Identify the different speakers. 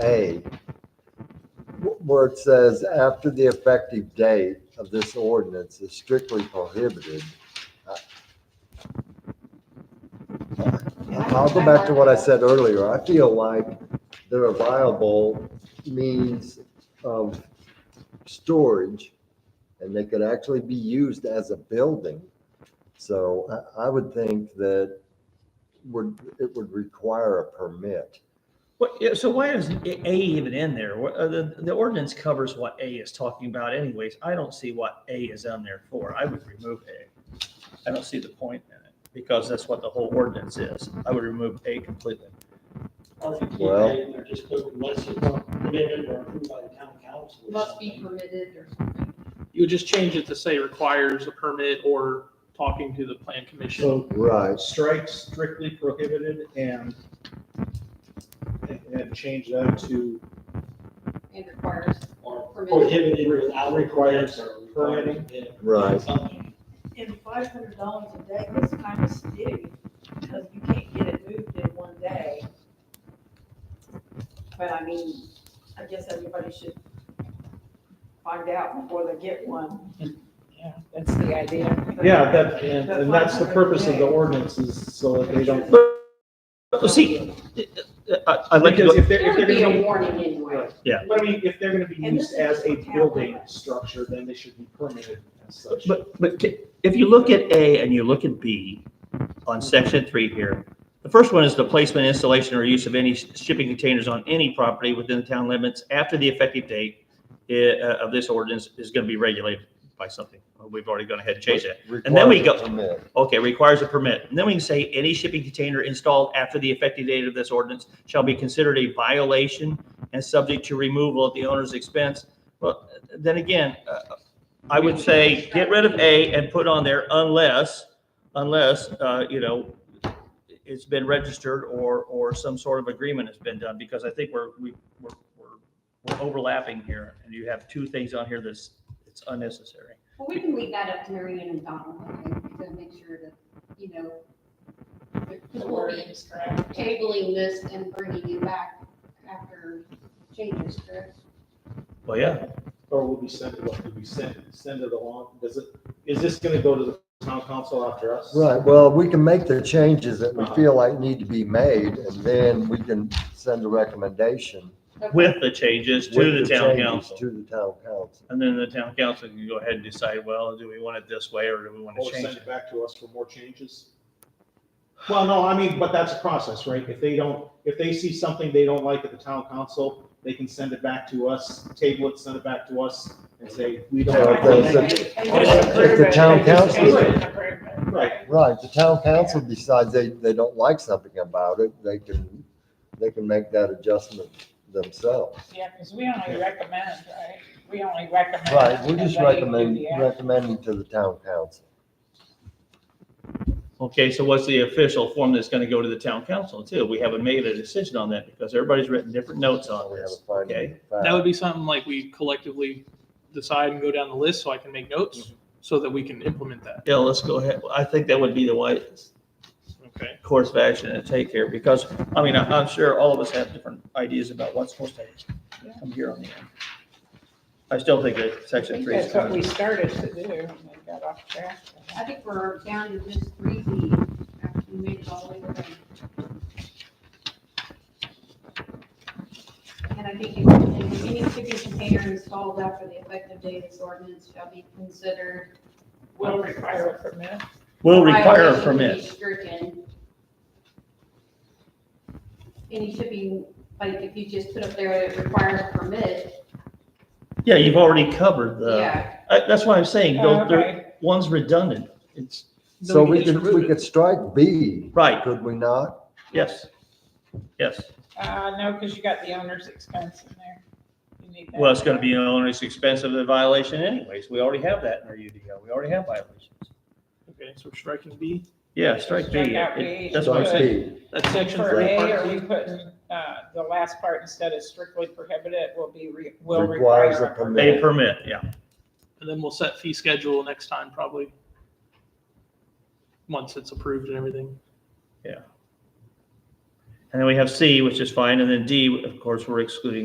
Speaker 1: A, wh- where it says, after the effective date of this ordinance is strictly prohibited. I- I'll go back to what I said earlier. I feel like there are viable means of storage, and they could actually be used as a building. So I, I would think that would, it would require a permit.
Speaker 2: What, yeah, so why is A even in there? What, uh, the, the ordinance covers what A is talking about anyways. I don't see what A is on there for. I would remove A. I don't see the point in it because that's what the whole ordinance is. I would remove A completely.
Speaker 3: Or if you keep
Speaker 1: Well-
Speaker 3: it in there, just put unless it's not permitted or approved by the town council. or
Speaker 4: must be
Speaker 3: something.
Speaker 4: permitted or something.
Speaker 5: You would just change it to say requires a permit or talking to the plan commission.
Speaker 6: So
Speaker 1: Right.
Speaker 6: strike strictly prohibited and and change that to
Speaker 4: It requires
Speaker 3: Or
Speaker 6: Oh,
Speaker 4: permitted.
Speaker 3: prohibited without.
Speaker 6: Requires
Speaker 3: permitting.
Speaker 1: Right.
Speaker 3: Something.
Speaker 7: And five hundred dollars a day is kind of steep, because you can't get it moved in one day. But I mean, I guess everybody should find out before they get one. Yeah, that's the idea.
Speaker 6: yeah that and, and that's the purpose of the ordinance is so that they don't
Speaker 2: But see, uh, I, I'd like to,
Speaker 6: because
Speaker 2: go-
Speaker 6: if they're,
Speaker 4: There
Speaker 6: if
Speaker 4: would
Speaker 6: they're
Speaker 4: be
Speaker 6: gonna
Speaker 4: a
Speaker 6: be
Speaker 4: warning anyway.
Speaker 2: Yeah.
Speaker 6: But I mean, if they're gonna be
Speaker 7: And this
Speaker 6: used
Speaker 7: is
Speaker 6: as
Speaker 7: just
Speaker 6: a
Speaker 7: for town
Speaker 6: building
Speaker 7: limits.
Speaker 6: structure, then they should be permitted as such.
Speaker 2: but, but ca- if you look at A and you look at B on section three here, the first one is the placement, installation, or use of any sh- shipping containers on any property within the town limits after the effective date eh, uh, of this ordinance is going to be regulated by something. We've already gone ahead and changed that. And then we
Speaker 1: Requires
Speaker 2: go-
Speaker 1: a permit.
Speaker 2: Okay, requires a permit. And then we can say any shipping container installed after the effective date of this ordinance shall be considered a violation and subject to removal at the owner's expense. Well, then again, uh, I would say get rid of A and put on there unless, unless, uh, you know, it's been registered or, or some sort of agreement has been done, because I think we're, we, we're, we're we're overlapping here. And you have two things on here that's, it's unnecessary.
Speaker 4: Well, we can leave that up to Marion and Donald, I think, to make sure that, you know,
Speaker 7: The
Speaker 4: because we'll
Speaker 7: word
Speaker 4: be
Speaker 7: is correct.
Speaker 4: tabling this and bringing you back after changes, correct?
Speaker 2: Well, yeah,
Speaker 6: Or will we send it, what, do we send, send it along? Does it, is this gonna go to the town council after us?
Speaker 1: Right, well, we can make the changes that we feel like need to be made, and then we can send a recommendation.
Speaker 4: Okay.
Speaker 2: with the changes
Speaker 1: with
Speaker 2: to the town
Speaker 1: changes
Speaker 2: council.
Speaker 1: To the town council.
Speaker 2: And then the town council can go ahead and decide, well, do we want it this way or do we want to
Speaker 6: Or
Speaker 2: change
Speaker 6: send
Speaker 2: it?
Speaker 6: it back to us for more changes? Well, no, I mean, but that's a process, right? If they don't, if they see something they don't like at the town council, they can send it back to us, table it, send it back to us and say, we don't like
Speaker 1: So
Speaker 6: this.
Speaker 1: if they- If uh, the town council,
Speaker 6: Right,
Speaker 1: right, the town council decides they, they don't like something about it, they can, they can make that adjustment themselves.
Speaker 8: Yeah, because we only recommend, right? We only recommend.
Speaker 1: Right, we're just
Speaker 8: and they do
Speaker 1: recommending,
Speaker 8: the act.
Speaker 1: recommending to the town council.
Speaker 2: Okay, so what's the official form that's going to go to the town council too? We haven't made a decision on that because everybody's written different notes on
Speaker 1: We have
Speaker 2: this.
Speaker 1: a finding of fact.
Speaker 5: That would be something like we collectively decide and go down the list so I can make notes so that we can implement that.
Speaker 2: Yeah, let's go ahead. I think that would be the wisest
Speaker 5: Okay.
Speaker 2: course of action to take here because, I mean, I- I'm sure all of us have different ideas about what's supposed to come here on the end. I still think that
Speaker 8: I
Speaker 2: section
Speaker 8: think
Speaker 2: three is
Speaker 8: that's what we
Speaker 2: coming.
Speaker 8: started to do and we got off track.
Speaker 4: I think we're down to just three B, after we made it all the way around. And I think if if any shipping container installed after the effective date of this ordinance shall be considered.
Speaker 8: Will require a permit.
Speaker 2: Will require a
Speaker 4: violation to be
Speaker 2: permit.
Speaker 4: Stricken. Any shipping, like if you just put up there, it requires a permit,
Speaker 2: Yeah, you've already covered the,
Speaker 4: yeah,
Speaker 2: I- that's why I'm saying, don't- there-
Speaker 8: Oh, Okay.
Speaker 2: one's redundant. It's.
Speaker 1: So we
Speaker 2: can
Speaker 1: could, we could strike B,
Speaker 2: Right,
Speaker 1: could we not?
Speaker 2: yes. Yes.
Speaker 8: Uh, no, because you got the owner's expense in there. You need that.
Speaker 2: Well, it's gonna be an owner's expense of the violation anyways. We already have that in our UDO. We already have violations.
Speaker 5: Okay, so we're striking B.
Speaker 2: Yeah, strike
Speaker 8: Strike
Speaker 2: B.
Speaker 8: out B.
Speaker 2: It- That's what I'm
Speaker 8: Strike
Speaker 2: saying.
Speaker 1: Speed.
Speaker 5: That's section
Speaker 8: For
Speaker 5: three.
Speaker 8: A,
Speaker 5: part
Speaker 8: are
Speaker 5: B.
Speaker 8: you putting, uh, the last part instead of strictly prohibited will be, re- will require.
Speaker 1: Requires a
Speaker 2: A
Speaker 1: permit.
Speaker 2: permit, yeah.
Speaker 5: And then we'll set fee schedule next time, probably. Once it's approved and everything.
Speaker 2: And then we have C, which is fine, and then D, of course, we're excluding